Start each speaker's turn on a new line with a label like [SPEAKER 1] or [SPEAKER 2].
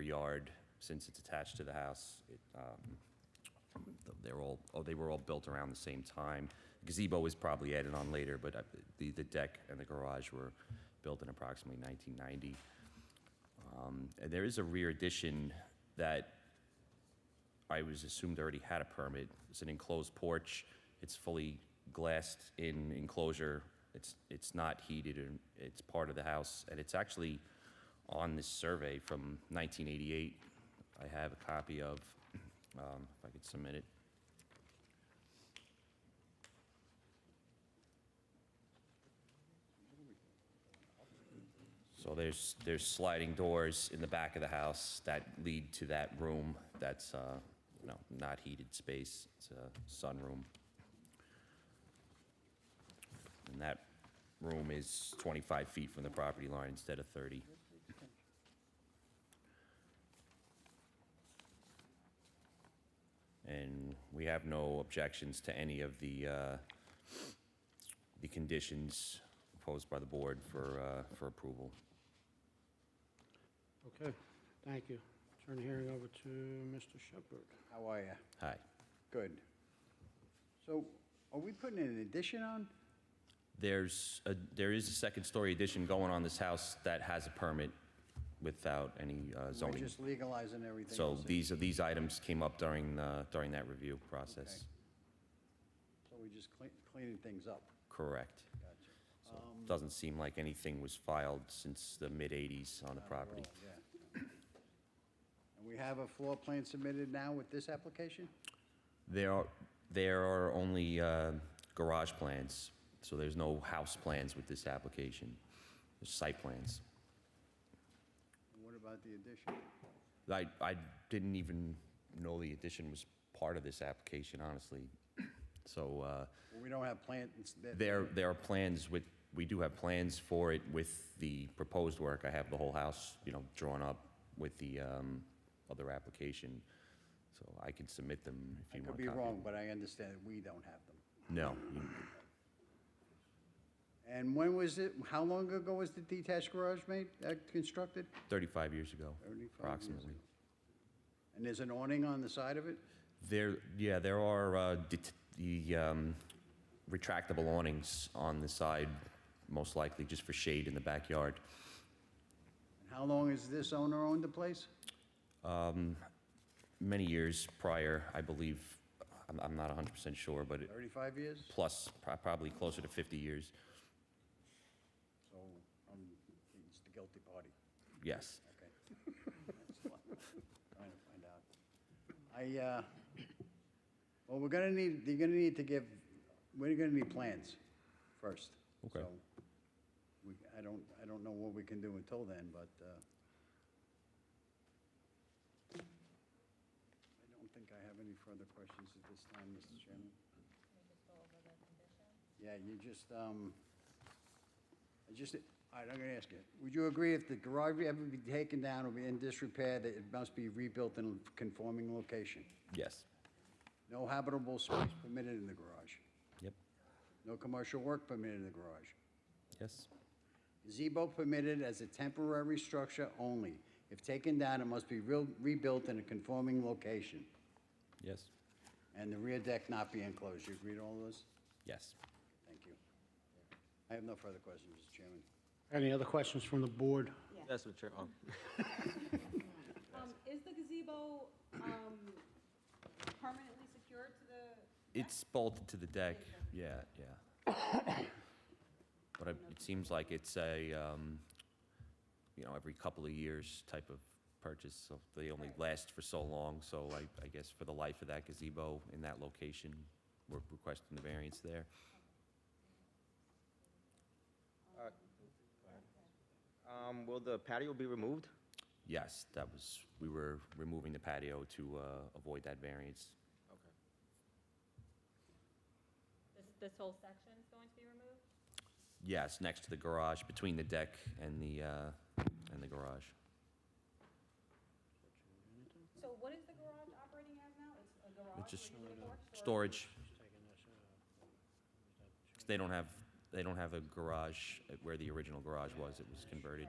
[SPEAKER 1] yard, since it's attached to the house, it, um, th- they're all, oh, they were all built around the same time. Gazebo was probably added on later, but uh, the, the deck and the garage were built in approximately 1990. Um, And there is a rear addition that I was assumed already had a permit. It's an enclosed porch. It's fully glassed in enclosure. It's, it's not heated and it's part of the house. And it's actually on this survey from 1988. I have a copy of, um, if I could submit it. So there's, there's sliding doors in the back of the house that lead to that room that's, uh, you know, not heated space, it's a sunroom. And that room is 25 feet from the property line instead of 30. And we have no objections to any of the, uh, the conditions proposed by the board for, uh, for approval.
[SPEAKER 2] Okay, thank you. Turn the hearing over to Mr. Shepherd.
[SPEAKER 3] How are you?
[SPEAKER 1] Hi.
[SPEAKER 3] Good. So are we putting an addition on?
[SPEAKER 1] There's, a- there is a second-story addition going on this house that has a permit without any uh,
[SPEAKER 3] We're
[SPEAKER 1] zoning.
[SPEAKER 3] just legalizing everything?
[SPEAKER 1] So
[SPEAKER 3] else?
[SPEAKER 1] these, these items came up during, the- during that review process.
[SPEAKER 3] Okay. So we're just cle- cleaning things up?
[SPEAKER 1] Correct.
[SPEAKER 3] Gotcha.
[SPEAKER 1] So
[SPEAKER 3] Um,
[SPEAKER 1] it Doesn't seem like anything was filed since the mid-'80s on the property.
[SPEAKER 3] Overall, Oh, yeah. And we have a floor plan submitted now with this application?
[SPEAKER 1] There are, there are only uh, garage plans, so there's no house plans with this application, There's site plans.
[SPEAKER 3] And What about the addition?
[SPEAKER 1] I, I didn't even know the addition was part of this application, honestly. So uh,
[SPEAKER 3] Well, We don't have plans that...
[SPEAKER 1] there, there are plans with, we do have plans for it with the proposed work. I have the whole house, you know, drawn up with the um, other application. So I can submit them if
[SPEAKER 3] I
[SPEAKER 1] you
[SPEAKER 3] could
[SPEAKER 1] want
[SPEAKER 3] be
[SPEAKER 1] to copy.
[SPEAKER 3] wrong, but I understand that we don't have them.
[SPEAKER 1] No. you-
[SPEAKER 3] And when was it, how long ago was the detached garage made, uh, constructed?
[SPEAKER 1] 35 years ago,
[SPEAKER 3] 35 years
[SPEAKER 1] approximately.
[SPEAKER 3] ago. And there's an awning on the side of it?
[SPEAKER 1] There, yeah, there are uh, det- the um, retractable awnings on the side, most likely just for shade in the backyard.
[SPEAKER 3] And How long has this owner owned the place?
[SPEAKER 1] many years prior, I believe, I'm, I'm not 100% sure, but it-
[SPEAKER 3] 35 years?
[SPEAKER 1] plus, pro- probably closer to 50 years,
[SPEAKER 3] So I'm, it's the guilty party,
[SPEAKER 1] yes.
[SPEAKER 3] okay. That's what I'm Trying to find out. I, uh, well, we're gonna need, you're gonna need to give, we're gonna need plans first.
[SPEAKER 1] Okay.
[SPEAKER 3] So, We, I don't, I don't know what we can do until then, but, uh, I don't think I have any further questions at this time, Mr. Chairman. Yeah, you just, um, I just, all right, I'm gonna ask you, would you agree if the garage ever be taken down or be in disrepair, that it must be rebuilt in a conforming location?
[SPEAKER 1] Yes.
[SPEAKER 3] No habitable space permitted in the garage.
[SPEAKER 1] Yep.
[SPEAKER 3] No commercial work permitted in the garage.
[SPEAKER 1] Yes.
[SPEAKER 3] Gazebo permitted as a temporary structure only. If taken down, it must be real- rebuilt in a conforming location,
[SPEAKER 1] Yes.
[SPEAKER 3] and the rear deck not be enclosed. You agree to all those?
[SPEAKER 1] Yes.
[SPEAKER 3] Thank you. I have no further questions, Mr. Chairman.
[SPEAKER 2] Any other questions from the board?
[SPEAKER 4] That's what you're on.
[SPEAKER 5] Um, is the gazebo, um, permanently secured to the,
[SPEAKER 1] It's bolted to the deck, yeah, yeah. But it it seems like it's a, um, you know, every couple of years type of purchase, so they only last for so long, so I, I guess for the life of that gazebo in that location, we're requesting the variance there.
[SPEAKER 4] Um, will the patio be removed?
[SPEAKER 1] Yes, that was, we were removing the patio to uh, avoid that variance.
[SPEAKER 4] Okay.
[SPEAKER 6] This, this whole section's going to be removed?
[SPEAKER 1] Yes, next to the garage, between the deck and the, uh, and the garage.
[SPEAKER 5] so what is the garage operating as now? It's a
[SPEAKER 1] It's
[SPEAKER 5] garage
[SPEAKER 1] just
[SPEAKER 5] where you need a porch? or-
[SPEAKER 1] storage. They don't have, they don't have a garage uh, where the original garage was, it was converted.